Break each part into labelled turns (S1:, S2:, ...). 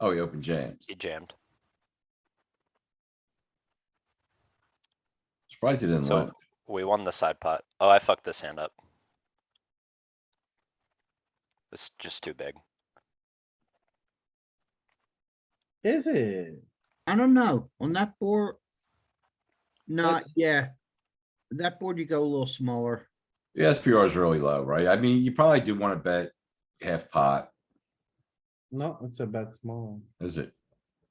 S1: Oh, he opened jams.
S2: He jammed.
S1: Surprised he didn't
S2: So-
S1: limp.
S2: We won the side pot. Oh, I fucked this hand up. It's just too big.
S3: Is it?
S4: I don't know, on that board. Not,
S3: That's-
S4: yeah. That board you go a little smaller.
S1: The SPR is really low, right? I mean, you probably do wanna bet half pot,
S3: No, it's a bet small.
S1: is it?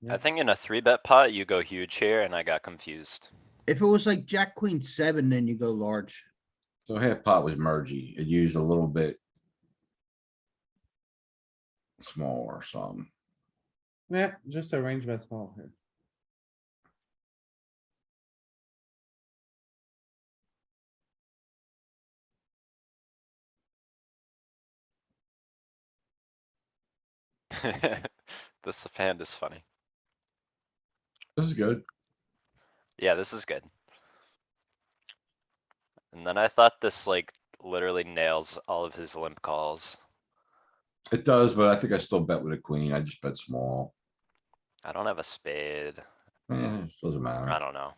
S2: I
S3: Yeah.
S2: think in a three bet pot, you go huge here and I got confused.
S4: If it was like jack, queen, seven, then you go large.
S1: So half pot was mergey. It used a little bit. Small or something.
S3: Yeah, just a range bet small here.
S2: This hand is funny.
S1: This is good.
S2: Yeah, this is good. And then I thought this like literally nails all of his limp calls.
S1: It does, but I think I still bet with a queen. I just bet small.
S2: I don't have a spade.
S1: Eh, it doesn't
S2: I
S1: matter.
S2: don't know.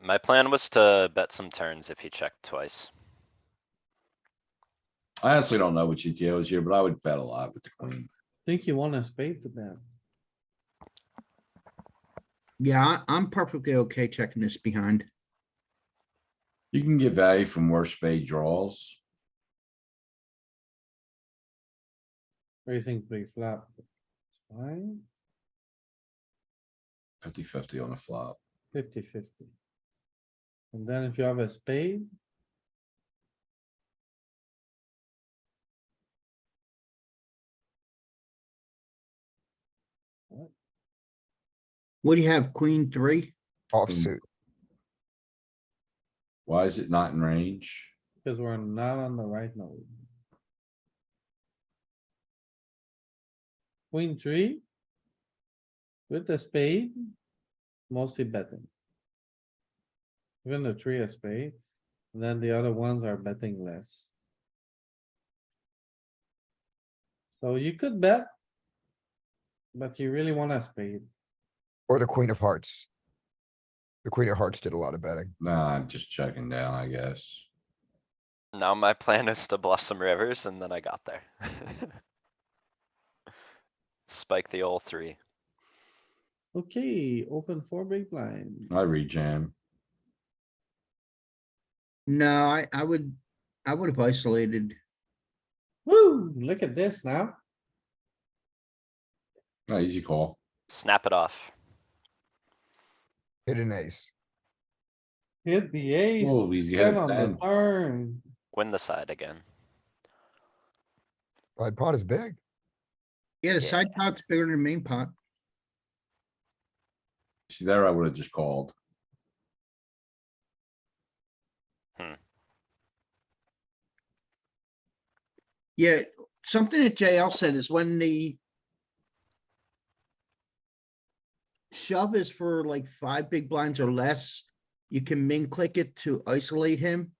S2: My plan was to bet some turns if he checked twice.
S1: I honestly don't know what GTO is here, but I would bet a lot with the queen.
S3: Think you want a spade to bet.
S4: Yeah, I- I'm perfectly okay checking this behind.
S1: You can get value from worse spade draws.
S3: Raising pre-flop. It's Fine,
S1: 50-50 on the flop.
S3: fifty fifty. And then if you have a spade.
S4: What do you have, queen, three?
S5: Offsuit.
S1: Why is it not in range?
S3: Cause we're not on the right note. Queen three. With the spade. Mostly betting. Even the three of spade, and then the other ones are betting less. So you could bet. But you really want a spade.
S5: Or the queen of hearts. The queen of hearts did a lot of betting.
S1: Nah, I'm just checking down, I guess.
S2: Now my plan is to bluff some rivers and then I got there. Spike the old three.
S3: Okay, open four big blind.
S1: I rejam.
S4: No, I, I would, I would have isolated.
S3: Woo, look at this now.
S1: Ah, Easy call.
S2: Snap it off.
S5: Hit an ace.
S3: Hit the ace.
S1: Oh, easy
S3: Ten
S1: head
S3: on the
S1: ten.
S3: turn.
S2: Win the side again.
S5: But pot is big.
S4: Yeah, the
S2: Yeah.
S4: side pot's bigger than the main pot.
S1: See there, I would have just called.
S4: Yeah, something that JL said is when the shove is for like five big blinds or less, you can min click it to isolate him.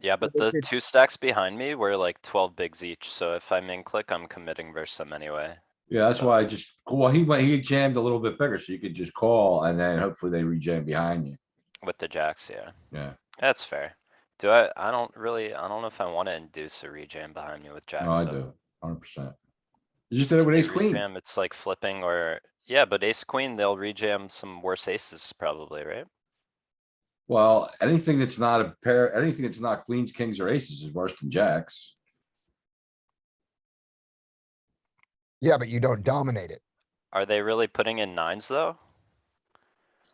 S2: Yeah, but
S4: Well,
S2: the
S4: they did-
S2: two stacks behind me were like twelve bigs each, so if I'm in click, I'm committing versus them anyway.
S1: Yeah, that's
S2: So-
S1: why I just, well, he went, he jammed a little bit bigger, so you could just call and then hopefully they rejam behind you.
S2: With the jacks, yeah.
S1: Yeah.
S2: That's fair. Do I, I don't really, I don't know if I wanna induce a rejam behind me with jacks.
S1: No, I
S2: so
S1: do, hundred percent. You just did it
S2: if
S1: with
S2: they
S1: ace queen.
S2: rejam, It's like flipping or, yeah, but ace queen, they'll rejam some worse aces probably, right?
S1: Well, anything that's not a pair, anything that's not queens, kings or aces is worse than jacks.
S5: Yeah, but you don't dominate it.
S2: Are they really putting in nines though?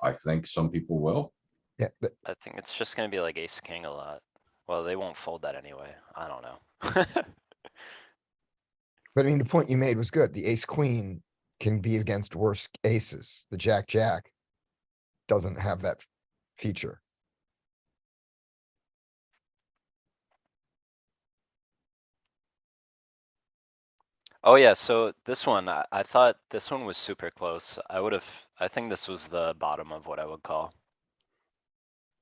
S1: I think some people will.
S5: Yeah, but
S2: I think it's just gonna be like ace king a lot. Well, they won't fold that anyway. I don't know.
S5: but I mean, the point you made was good. The ace queen can be against worse aces. The jack jack doesn't have that feature.
S2: Oh yeah, so this one, I, I thought this one was super close. I would have, I think this was the bottom of what I would call.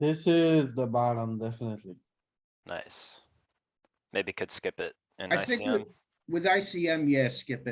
S3: This is the bottom, definitely.
S2: Nice. Maybe could skip it in
S4: I think
S2: ICM.
S4: with ICM, yeah, skip it.